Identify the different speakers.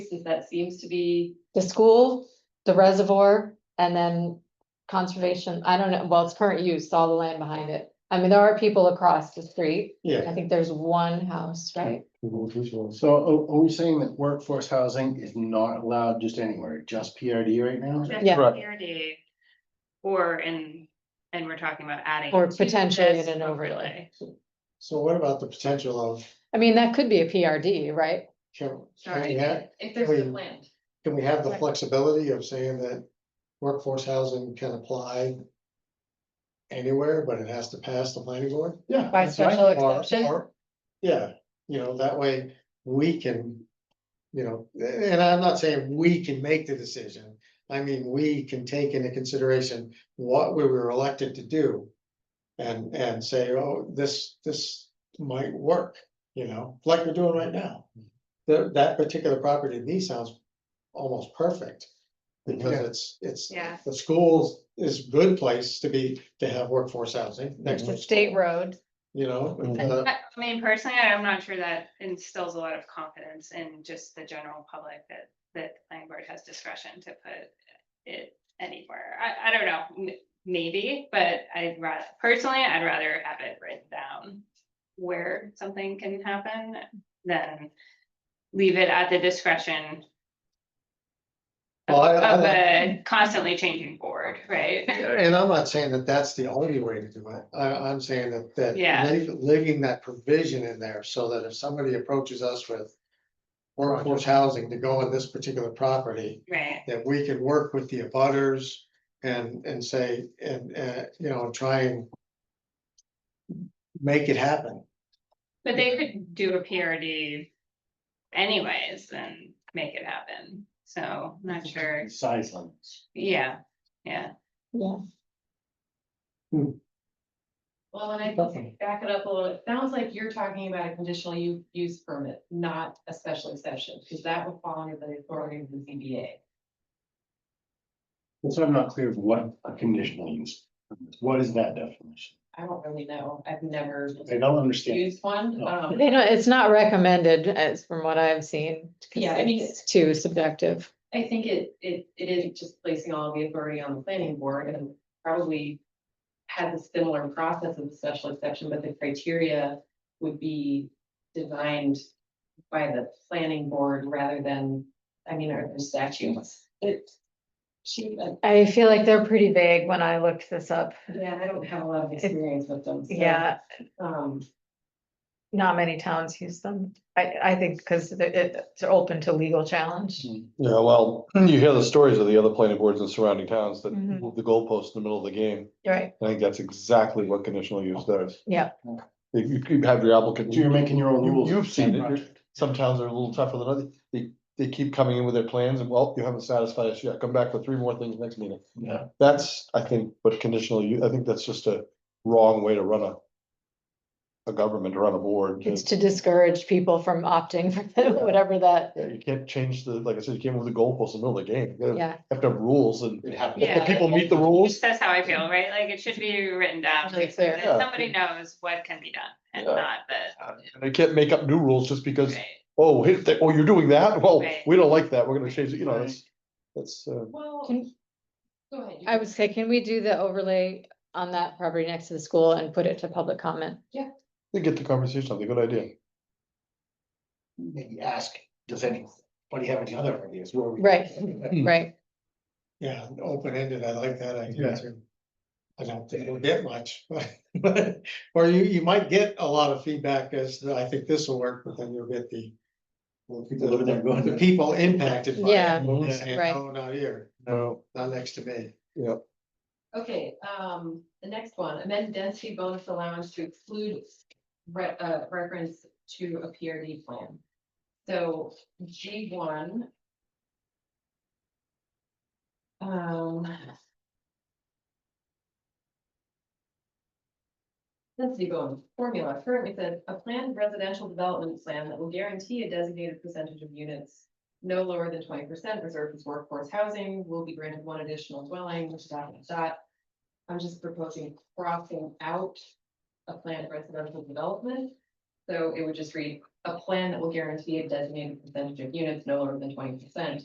Speaker 1: since that seems to be,
Speaker 2: the school, the reservoir, and then conservation, I don't know, well, it's current use, all the land behind it. I mean, there are people across the street. I
Speaker 3: Yeah,
Speaker 2: think there's one house, right?
Speaker 3: so are, are we saying that workforce housing is not allowed just anywhere, just PRD right now?
Speaker 1: just
Speaker 2: Yeah.
Speaker 3: Right.
Speaker 1: clarity. Or, and, and we're talking about adding.
Speaker 2: Or
Speaker 1: to
Speaker 2: potentially
Speaker 1: this
Speaker 2: in an overlay.
Speaker 4: So what about the potential of,
Speaker 2: I mean, that could be a PRD, right?
Speaker 4: can, can
Speaker 1: Sorry,
Speaker 4: we have,
Speaker 1: if there's a
Speaker 4: wait.
Speaker 1: land,
Speaker 4: can we have the
Speaker 2: Right.
Speaker 4: flexibility of saying that workforce housing can apply anywhere, but it has to pass the planning board?
Speaker 3: Yeah.
Speaker 2: By
Speaker 3: that's right.
Speaker 2: special
Speaker 4: Or-
Speaker 2: exception,
Speaker 4: or- Yeah, you know, that way we can, you know, a- and I'm not saying we can make the decision. I mean, we can take into consideration what we were elected to do. And, and say, oh, this, this might work, you know, like we're doing right now. That, that particular property to me sounds almost perfect. Because it's, it's,
Speaker 1: yeah,
Speaker 4: the schools is good place to be, to have workforce housing next
Speaker 2: the
Speaker 4: to. the
Speaker 2: state
Speaker 4: school,
Speaker 2: road,
Speaker 4: You know.
Speaker 3: Mhm.
Speaker 4: uh,
Speaker 1: I I mean, personally, I'm not sure that instills a lot of confidence in just the general public that, that the planning board has discretion to put it anywhere, I, I don't know, m- maybe, but I'd rather, personally, I'd rather have it written down where something can happen than leave it at the discretion of
Speaker 4: Well, I- I
Speaker 1: of
Speaker 4: like-
Speaker 1: a constantly changing board, right?
Speaker 4: And I'm not saying that that's the only way to do it. I, I'm saying that, that.
Speaker 1: Yeah.
Speaker 4: leave- Leaving that provision in there so that if somebody approaches us with workforce housing to go on this particular property,
Speaker 1: Right,
Speaker 4: that we can work with the abutters and, and say, and, uh, you know, try and make it happen.
Speaker 1: but they could do a PRD anyways and make it happen, so I'm not sure,
Speaker 3: Size limits.
Speaker 1: yeah, yeah.
Speaker 2: yeah.
Speaker 5: Well, when I
Speaker 4: Okay.
Speaker 5: back it up a little, it sounds like you're talking about a conditional u- use permit, not a special exception, because that would fall under the authority of the ZBA.
Speaker 3: And so I'm not clear of what a conditional use, is. what is that definition?
Speaker 5: I don't really know. I've never
Speaker 3: I don't understand.
Speaker 5: used one.
Speaker 3: No.
Speaker 5: Um,
Speaker 2: They don't, it's not recommended as from what I've seen. 'cause
Speaker 5: Yeah, I mean,
Speaker 2: It's too subjective.
Speaker 5: I think it, it, it is just placing all the authority on the planning board and probably had a similar process of the special exception, but the criteria would be designed by the planning board rather than, I mean, are there statutes? It, she, uh,
Speaker 2: I feel like they're pretty vague when I looked this up.
Speaker 5: yeah, I don't have a lot of experience with them. so,
Speaker 2: Yeah,
Speaker 5: Um,
Speaker 2: not many towns use them. I, I think because it's open to legal challenge.
Speaker 6: Yeah, well, you hear the stories of the other planning boards in surrounding towns that
Speaker 2: Mhm.
Speaker 6: move the goalposts in the middle of the game.
Speaker 2: Right,
Speaker 6: I think that's exactly what conditional use does.
Speaker 2: Yeah.
Speaker 6: If you could have your applicant,
Speaker 3: So you're making your own
Speaker 6: You-
Speaker 3: rules.
Speaker 6: you've
Speaker 3: for
Speaker 6: seen
Speaker 3: that
Speaker 6: it.
Speaker 3: project.
Speaker 6: some towns are a little tougher than others. They, they keep coming in with their plans and, well, you haven't satisfied us yet. Come back for three more things next meeting.
Speaker 3: Yeah.
Speaker 6: That's, I think, what conditional use, I think that's just a wrong way to run a a government, to run a board.
Speaker 2: it's to discourage people from opting for whatever that,
Speaker 6: Mm-hmm. Yeah, you can't change the, like I said, you can't move the goalposts in the middle of the game. You gotta
Speaker 2: yeah.
Speaker 6: have to have rules and
Speaker 3: It happens.
Speaker 6: if the
Speaker 1: Yeah.
Speaker 6: people meet the rules,
Speaker 1: That's how I feel, right? Like it should be written down, so
Speaker 2: Really clear.
Speaker 1: that
Speaker 6: Yeah.
Speaker 1: somebody knows what can be done and
Speaker 6: Yeah.
Speaker 1: not that.
Speaker 6: And They can't make up new rules just because,
Speaker 1: right.
Speaker 6: oh, hey, they- oh, you're doing that? Well,
Speaker 1: Right.
Speaker 6: we don't like that. We're gonna change it, you know, that's, that's, uh,
Speaker 5: well,
Speaker 2: Can-
Speaker 5: go ahead. you
Speaker 2: I
Speaker 5: can-
Speaker 2: would say, can we do the overlay on that property next to the school and put it to public comment?
Speaker 6: they get the conversation, they good idea.
Speaker 3: Maybe ask, does anybody have any other ideas? Where we-
Speaker 2: Right. Right,
Speaker 4: Yeah, open ended. I like that
Speaker 3: Yeah.
Speaker 4: idea too. I don't think we'll get much, but, or you, you might get a lot of feedback as, to, I think this will work, but then you'll get the.
Speaker 3: people living there going,
Speaker 4: The people impacted by it.
Speaker 2: Yeah,
Speaker 4: will say,
Speaker 2: right.
Speaker 4: No, not here,
Speaker 6: No,
Speaker 4: not next to me.
Speaker 5: Okay, um, the next one, amend density bonus allowance to exclude re- uh, reference to a PRD plan. So G one. Um. Density bonus formula currently says a planned residential development plan that will guarantee a designated percentage of units. No lower than twenty percent reserved as workforce housing will be granted one additional dwelling, which dot, dot, dot. I'm just proposing crossing out a planned residential development. So it would just read, a plan that will guarantee a designated percentage of units no lower than twenty percent